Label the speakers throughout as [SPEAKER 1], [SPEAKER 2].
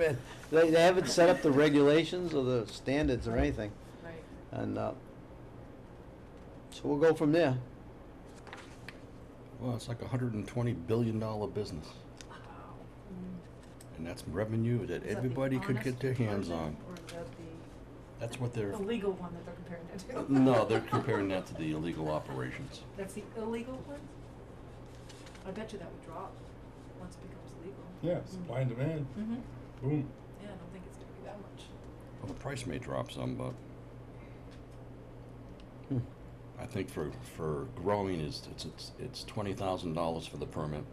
[SPEAKER 1] But They, they haven't set up the regulations or the standards or anything,
[SPEAKER 2] Right.
[SPEAKER 1] and, uh, so we'll go from there.
[SPEAKER 3] Well, it's like a hundred and twenty billion dollar business, and that's revenue that
[SPEAKER 2] Is that the
[SPEAKER 3] everybody could
[SPEAKER 2] honest
[SPEAKER 3] get their hands on.
[SPEAKER 2] version, Or is that the,
[SPEAKER 3] That's what they're,
[SPEAKER 2] the legal one that they're comparing that to?
[SPEAKER 3] no, they're comparing that to the illegal operations.
[SPEAKER 2] That's the illegal one? I bet you that would drop once it becomes legal.
[SPEAKER 4] Yeah, supply and demand,
[SPEAKER 2] Mm-hmm.
[SPEAKER 4] boom.
[SPEAKER 2] Yeah, I don't think it's gonna be that much.
[SPEAKER 3] Well, the price may drop some, but
[SPEAKER 1] Hmm.
[SPEAKER 3] I think for, for growing is, it's, it's, it's twenty thousand dollars for the permit.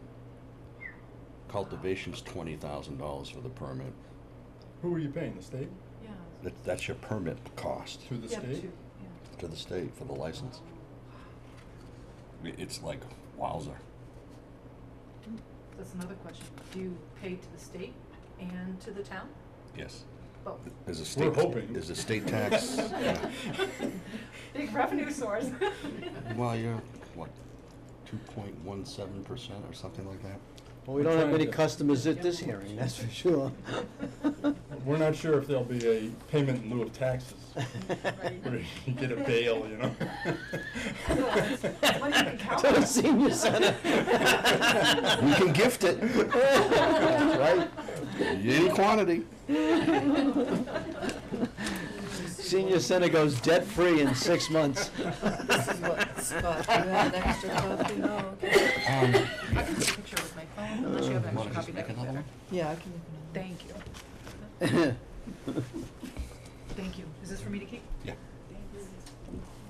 [SPEAKER 3] Cultivation's twenty thousand dollars for the permit.
[SPEAKER 4] Who are you paying, the state?
[SPEAKER 2] Yeah.
[SPEAKER 3] That, that's your permit cost
[SPEAKER 4] Through the
[SPEAKER 2] Yeah, but
[SPEAKER 4] state?
[SPEAKER 2] you- yeah.
[SPEAKER 3] to the state for the license. I- It's like wowzer.
[SPEAKER 2] That's another question. Do you pay to the state and to the town?
[SPEAKER 3] Yes.
[SPEAKER 2] Both.
[SPEAKER 3] There's a
[SPEAKER 4] We're
[SPEAKER 3] state,
[SPEAKER 4] hoping.
[SPEAKER 3] there's a state tax. yeah.
[SPEAKER 2] Big revenue source.
[SPEAKER 3] Well, you're, what, two point one seven percent or something like that?
[SPEAKER 1] Well, we
[SPEAKER 4] We're
[SPEAKER 1] don't have
[SPEAKER 4] trying
[SPEAKER 1] many
[SPEAKER 4] to-
[SPEAKER 1] customers at this hearing, that's for sure.
[SPEAKER 4] We're not sure if there'll be a payment in lieu of taxes, where you get a bail, you know?
[SPEAKER 2] Money you can count
[SPEAKER 1] To
[SPEAKER 2] on.
[SPEAKER 1] the senior center.
[SPEAKER 3] We can gift it.
[SPEAKER 1] Right?
[SPEAKER 3] Any quantity.
[SPEAKER 1] Senior center goes debt-free in six months.
[SPEAKER 5] This is what, Scott, you had extra coffee? Oh, okay.
[SPEAKER 3] Um,
[SPEAKER 2] I can take a picture with my phone, unless you have an
[SPEAKER 3] Wanna
[SPEAKER 2] extra
[SPEAKER 3] just
[SPEAKER 2] copy, that'd
[SPEAKER 3] make
[SPEAKER 2] be
[SPEAKER 3] another
[SPEAKER 2] better.
[SPEAKER 3] one?
[SPEAKER 5] Yeah, I can.
[SPEAKER 2] Thank you. Thank you. Is this for me to keep?
[SPEAKER 3] Yeah.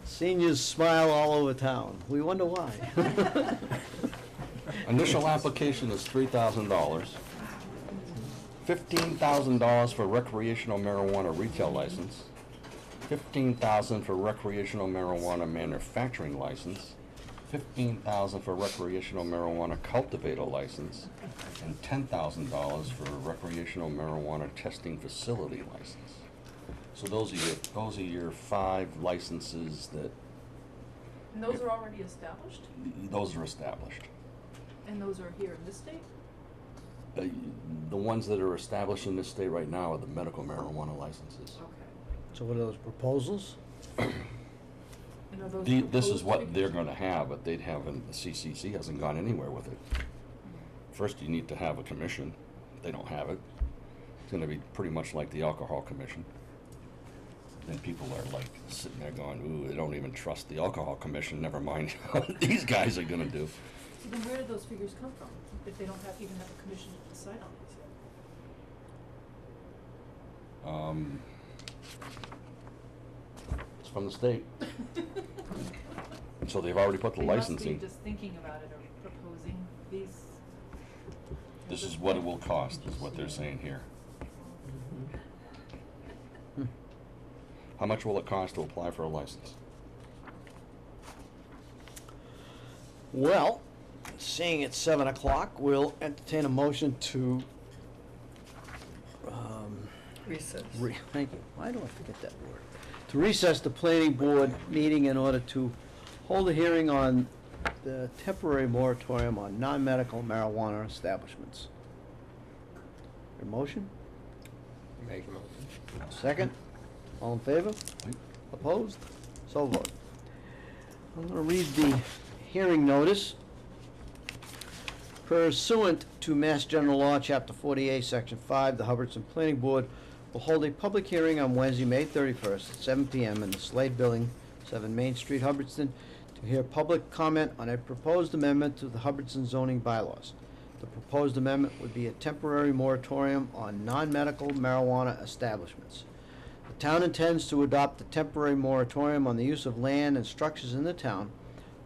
[SPEAKER 1] Seniors smile all over town, we wonder why.
[SPEAKER 3] Initial application is three thousand dollars. Fifteen thousand dollars for recreational marijuana retail license. Fifteen thousand for recreational marijuana manufacturing license. Fifteen thousand for recreational marijuana cultivator license. And ten thousand dollars for recreational marijuana testing facility license. So those are your, those are your five licenses that,
[SPEAKER 2] And those are already established,
[SPEAKER 3] those are established.
[SPEAKER 2] and those are here in this state?
[SPEAKER 3] The the ones that are established in this state right now are the medical marijuana licenses.
[SPEAKER 2] Okay.
[SPEAKER 1] So what are those proposals?
[SPEAKER 2] And are those
[SPEAKER 3] The- This
[SPEAKER 2] proposed
[SPEAKER 3] is
[SPEAKER 2] to
[SPEAKER 3] what
[SPEAKER 2] be-
[SPEAKER 3] they're gonna have, but they'd haven't, the CCC hasn't gone anywhere with it. First, you need to have a commission. They don't have it. It's gonna be pretty much like the alcohol commission. Then people are like sitting there going, ooh, they don't even trust the alcohol commission, never mind what these guys are gonna do.
[SPEAKER 2] So then where do those figures come from, if they don't have, even have a commission to decide on these?
[SPEAKER 3] Um, It's from the state, so they've already put the
[SPEAKER 2] They
[SPEAKER 3] licensing.
[SPEAKER 2] must be just thinking about it or proposing these.
[SPEAKER 3] This is what it will cost, is what they're saying here. How much will it cost to apply for a license?
[SPEAKER 1] Well, seeing it's seven o'clock, we'll entertain a motion to, um,
[SPEAKER 5] Recess.
[SPEAKER 1] re, thank you, why do I forget that word? To recess the planning board meeting in order to hold a hearing on the temporary moratorium on non-medical marijuana establishments. Your motion?
[SPEAKER 6] Make a motion.
[SPEAKER 1] Second? All in favor?
[SPEAKER 3] Aye.
[SPEAKER 1] Opposed? So vote. I'm gonna read the hearing notice. Pursuant to Mass General Law, Chapter forty-eight, Section five, the Hubbardson Planning Board will hold a public hearing on Wednesday, May thirty-first, at seven PM in the Slade Building, seven Main Street, Hubbardston, to hear public comment on a proposed amendment to the Hubbardson zoning bylaws. The proposed amendment would be a temporary moratorium on non-medical marijuana establishments. The town intends to adopt a temporary moratorium on the use of land and structures in the town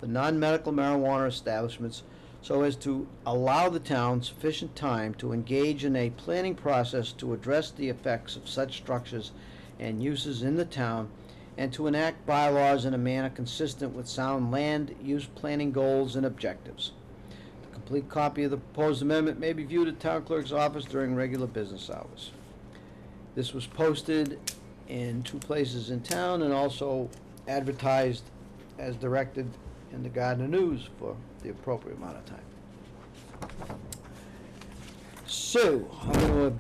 [SPEAKER 1] for non-medical marijuana establishments so as to allow the town sufficient time to engage in a planning process to address the effects of such structures and uses in the town and to enact bylaws in a manner consistent with sound land use planning goals and objectives. A complete copy of the proposed amendment may be viewed at town clerk's office during regular business hours. This was posted in two places in town and also advertised as directed in the Gardner News for the appropriate amount of time. So, I'm gonna